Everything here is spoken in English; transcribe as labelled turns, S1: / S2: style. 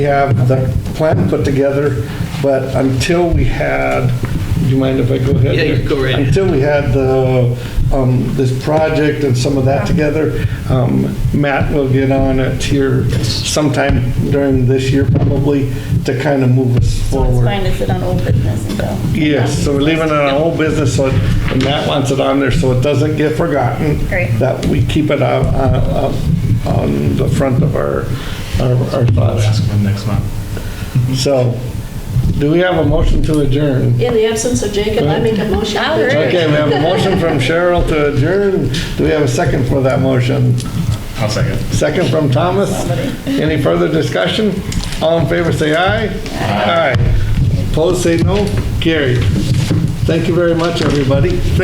S1: We have the plan put together, but until we had, do you mind if I go ahead?
S2: Yeah, you go right ahead.
S1: Until we had the, um, this project and some of that together, um, Matt will get on it here sometime during this year probably to kind of move us
S3: So it's
S1: forward.
S3: fine to sit on old business and go.
S1: Yes, so we're leaving it on old business, so, and Matt wants it on there, so it doesn't get forgotten.
S3: Great.
S1: That we keep it out, uh, up on the front of our, our our
S4: I'll ask
S1: thoughts.
S4: them next month.
S1: So, do we have a motion to adjourn?
S5: In the absence of Jacob, I make a motion.
S3: I'll
S5: to adjourn.
S1: Okay, we have a motion from Cheryl to adjourn. Do we have a second for that motion?
S4: I'll second.
S1: Second from Thomas. Any further discussion? All in favor, say aye. Aye. Opposed, say no. Carried. Thank you very much, everybody.